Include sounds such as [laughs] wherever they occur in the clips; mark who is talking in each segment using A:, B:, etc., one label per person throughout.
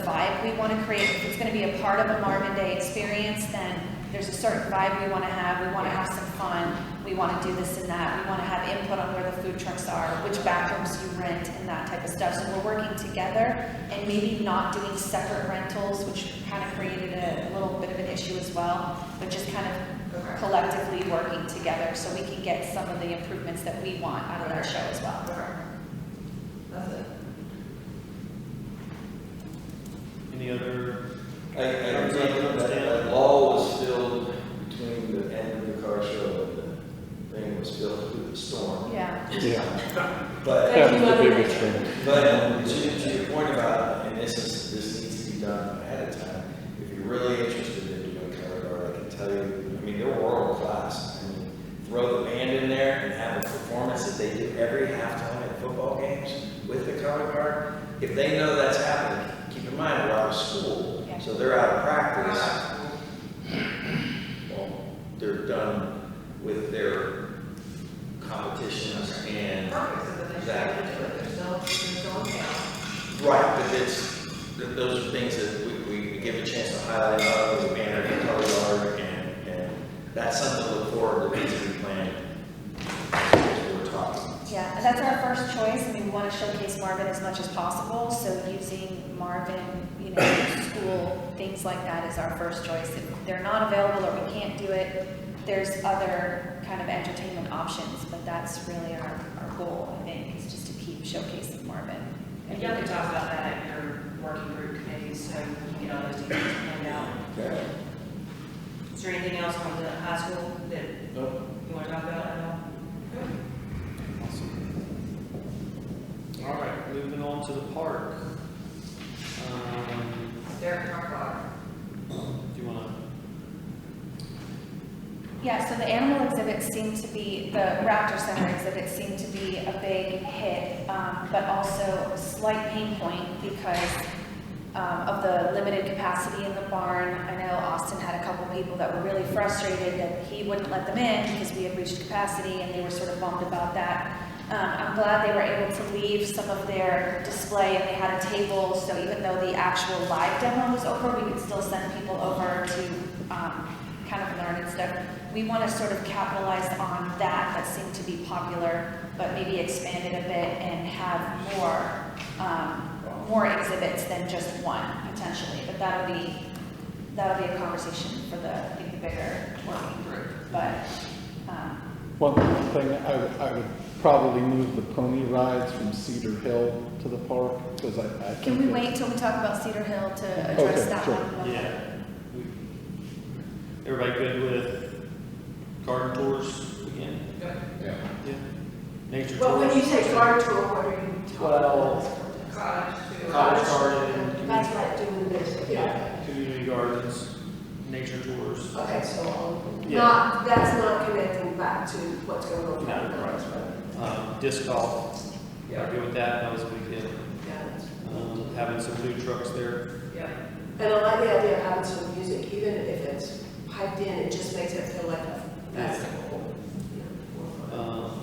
A: that we want to create, if it's going to be a part of a Marvin Day experience, then there's a certain vibe we want to have, we want to have some fun, we want to do this and that, we want to have input on where the food trucks are, which bathrooms you rent, and that type of stuff. So we're working together and maybe not doing separate rentals, which kind of created a little bit of an issue as well, but just kind of collectively working together so we can get some of the improvements that we want out of our show as well.
B: That's it.
C: Any other,
D: I, I don't think that, that law was still between the end of the car show and the thing was still through the storm.
A: Yeah.
E: Yeah,
D: But,
E: that was the biggest thing.
D: but uh, to, to your point about, and this is, this needs to be done ahead of time. If you're really interested in doing color guard, I can tell you, I mean, they're world class. I mean, throw the band in there and have a performance that they do every halftime at football games with the color guard. If they know that's happening, keep in mind, we're out of school,
A: Yeah.
D: so they're out of practice. Well, they're done with their competitions and, right,
B: Perfect, so that they should have to do it, there's no, there's no account.
D: but it's, th- those are things that we, we- we give a chance to highlight, not only the banner, the color guard, and, and that's something to look forward to, needs to be planned. as We're talking.
A: Yeah, and that's our first choice, and we want to showcase Marvin as much as possible, so using Marvin, you know, school, things like that is our first choice. If they're not available or we can't do it, there's other kind of entertainment options, but that's really our, our goal, I think, is just to keep showcasing Marvin.
F: And you can talk about that at your working group committees, so you can get all those details planned out.
D: Okay.
F: Is there anything else on the high school that you want to talk about at all?
C: all right, moving on to the park. Um,
B: Derek Carpenter.
C: Do you want
A: Yeah, so the animal exhibits seem to be, the Raptor Center exhibits seem to be a big hit, um, but also a slight pain point because um, of the limited capacity in the barn. I know Austin had a couple people that were really frustrated that he wouldn't let them in because we had reached capacity and they were sort of bummed about that. Um, I'm glad they were able to leave some of their display and they had a table, so even though the actual live demo was over, we could still send people over to um, kind of learn and stuff. We want to sort of capitalize on that that seemed to be popular, but maybe expand it a bit and have more, um, more exhibits than just one potentially. But that'll be, that'll be a conversation for the, I think, the bigger working group. But, um,
E: One thing, I would, I would probably move the pony rides from Cedar Hill to the park, because I, I think.
A: can we
E: that-
A: wait till we talk about Cedar Hill to address
E: Okay,
A: that
E: sure.
C: to,
A: one?
C: yeah. we- Everybody good with garden tours again? Yeah. Nature tours?
G: Well, when you say car tour, what are you talking about?
C: Well-
B: Cottage to.
C: Cottage garden, community-
G: That's what I do in this, yeah.
C: community gardens, nature tours.
G: Okay, so,
C: Yeah.
G: not, that's not connecting back to what's going on.
C: No, Um, Disc golf,
B: Yeah.
C: are good with that, that was a big deal.
B: Yeah, that's-
C: Um, Having some food trucks there.
B: yeah.
G: And I like the idea of having some music, even if it's piped in, it just makes it feel like a festival. you know, more fun.
C: um,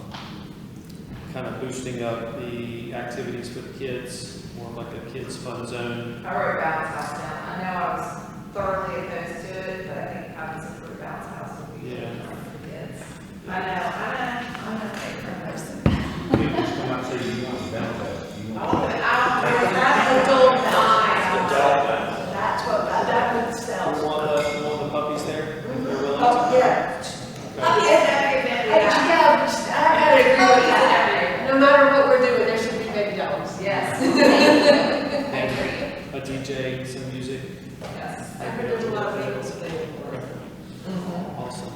C: Kind of boosting up the activities for the kids, more of like a kids fun zone.
B: I wrote bounce house down. I know I was thoroughly opposed to it, but I think having some sort of bounce house would be
C: Yeah.
B: good for kids. I know, I know, I'm a favorite person. I want it out.
G: That's a dull
D: Adult
G: That's what, that- that would
C: You
G: sell.
C: want the, you want the puppies there? They're willing to-
G: Oh, yeah.
B: I'll be at every event,
G: I,
B: yeah.
G: yeah, I gotta agree with that. No matter what we're doing, there should be baby dogs.
B: Yes,
C: And A DJ, some music,
B: [laughs] yes.
G: I've been doing a lot of bagels lately.
A: Mm-hmm.
C: awesome.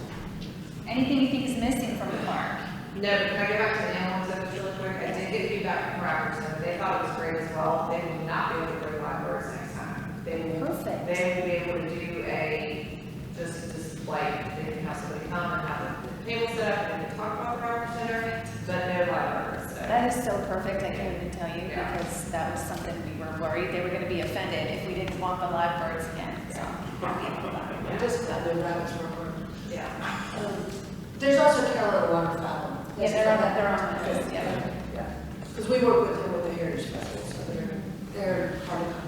A: Anything you think is missing from the park?
B: No, can I get back to the animal exhibits really quick? I did get feedback from Robertson. They thought it was great as well. They will not be able to bring live birds next time. They will,
A: Perfect.
B: they will be able to do a, just, just like, they can have somebody come and have a table set up and they can talk about the Robertson Center, but no live birds. So,
A: That is so perfect, I can't even tell you, because that was something we were worried, they were gonna be offended if we didn't want the live birds again, so. happy about that.
G: I'm just glad those rabbits were hurt.
B: Yeah.
G: Um, There's also Carolina Waterfowl.
A: Yeah, they're on, they're on the list, yeah.
G: Because we work with them with the Heritage Festival, so they're, they're part of